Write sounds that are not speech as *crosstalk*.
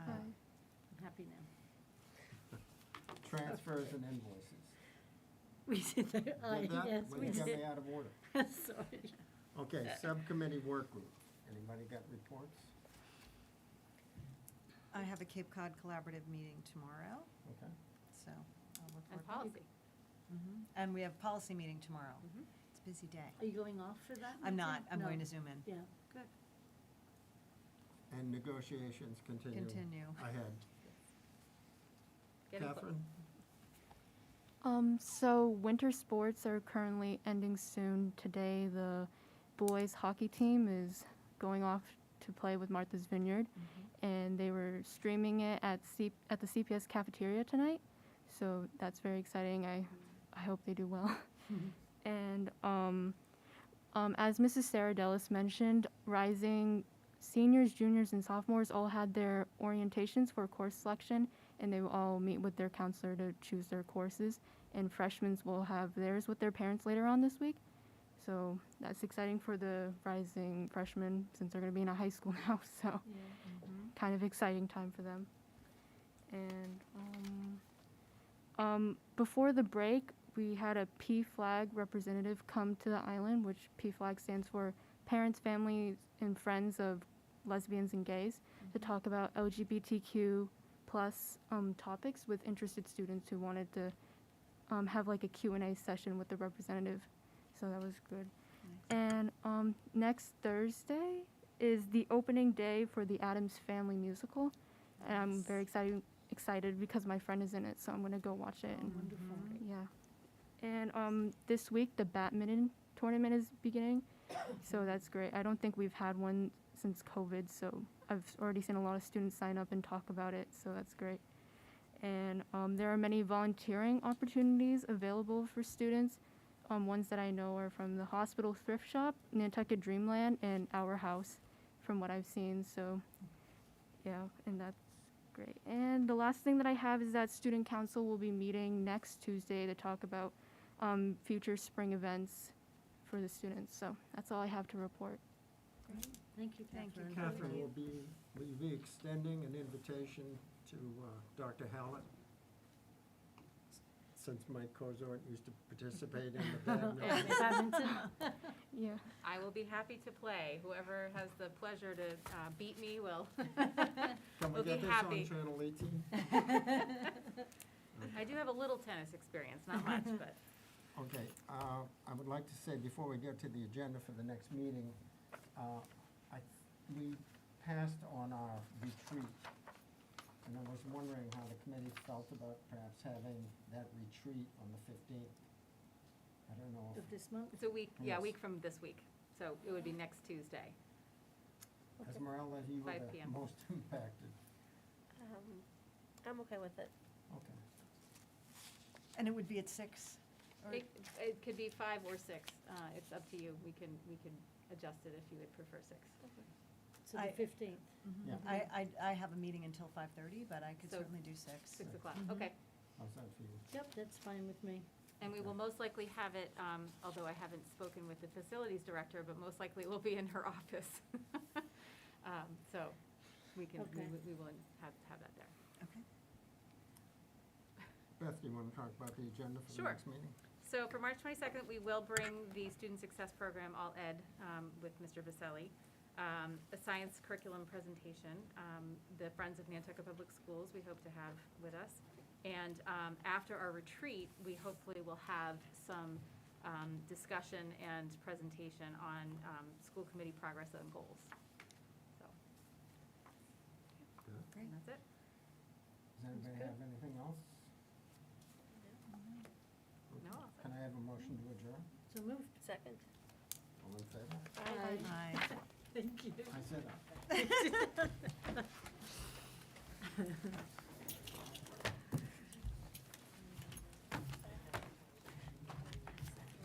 Uh, transfers and invoices. *laughs* *laughs* We did that, I- Did that? yes, Well, we You got me *laughs* did. out of *laughs* order. Sorry. Okay, subcommittee work group. Anybody got reports? I have a Cape Cod Collaborative meeting tomorrow, Okay. so I'll report. And policy. Mhm. And we have policy meeting tomorrow. Mhm. It's a busy day. Are you going off for that? I'm meeting? not, I'm going No. to Zoom in. Yeah. Good. And negotiations continue. Continue. Ahead. Getting clo- Catherine? Um, so winter sports are currently ending soon. Today, the boys hockey team is going off to play with Martha's Vineyard, and they were streaming it at C- at the CPS cafeteria tonight. So that's very exciting. I I hope they do well. *laughs* and um, um, as Mrs. Sarah Dellis mentioned, rising seniors, juniors, and sophomores all had their orientations for course selection, and they will all meet with their counselor to choose their courses. And freshmen will have theirs with their parents later on this week. So that's exciting for the rising freshmen since they're going to be in a high school *laughs* now. So Mm-hmm. kind of exciting time for them. And um, um, before the break, we had a P flag representative come to the island, which P flag stands for Parents, Families, and Friends of Lesbians and Gays, to Mm-hmm. talk about LGBTQ plus um, topics with interested students who wanted to um, have like a Q&A session with the representative. So that was good. And um, next Thursday is the opening day for the Adams Family musical, and I'm Nice. very excited excited because my friend is in it, so I'm gonna go watch it. and- Oh, Wonderful. Mm-hmm. yeah. And um, this week the badminton tournament is beginning, so that's great. I don't think we've had one since COVID, so I've already seen a lot of students sign up and talk about it, so that's great. And um, there are many volunteering opportunities available for students. Um, ones that I know are from the hospital thrift shop, Nantucket Dreamland, and Our House, from what I've seen. So, yeah, and that's great. And the last thing that I have is that student council will be meeting next Tuesday to talk about um, future spring events for the students. So that's all I have to report. Thank you, Thank you, Catherine. *laughs* Catherine will be, will you be extending an invitation to uh, Dr. Hallett? Since Mike Kozort used to participate in *laughs* the badminton. Badminton. *laughs* Yeah. I will be happy to play. Whoever has the pleasure to uh, beat me will. Can we We'll be get this on happy. Channel 18? *laughs* I do have a little tennis experience, not much, but Okay, uh, I would like to say, before we get to the agenda for the next meeting, uh, I, we passed on our retreat. And I was wondering how the committee felt about perhaps having that retreat on the fifteenth. I don't know Of if, this month. it's a week, yeah, a Yes. week from this week. So it would be next Tuesday. Esmeralda, you were 5 the PM. most *laughs* impacted. Um, I'm okay with it. Okay, *laughs* And it would be at six? or- It, it could be five or six. Uh, It's up to you. We can, we can adjust it if you would prefer six. So I- the fifteenth. Mhm. Yeah. I, I, I have a meeting until five-thirty, but I could So- certainly do six. Six o'clock, okay. how's that for you? Yep, that's fine with me. And we will most likely have it, um, although I haven't spoken with the facilities director, but most likely it will be in her *laughs* office. Um, So we can, we Okay. will- we will have, have that there. Okay. Beth, you want to talk about the agenda for the Sure. next meeting? So for March 22nd, we will bring the Student Success Program All Ed um, with Mr. Vaselli, um, a science curriculum presentation, um, the Friends of Nantucket Public Schools we hope to have with us. And um, after our retreat, we hopefully will have some um, discussion and presentation on um, school committee progress and goals. So, Good. and that's it. Does anybody have anything else? No, I'll say- Can I have a motion to adjourn? So moved. Second. All in favor? Aye. Thank you. I said aye.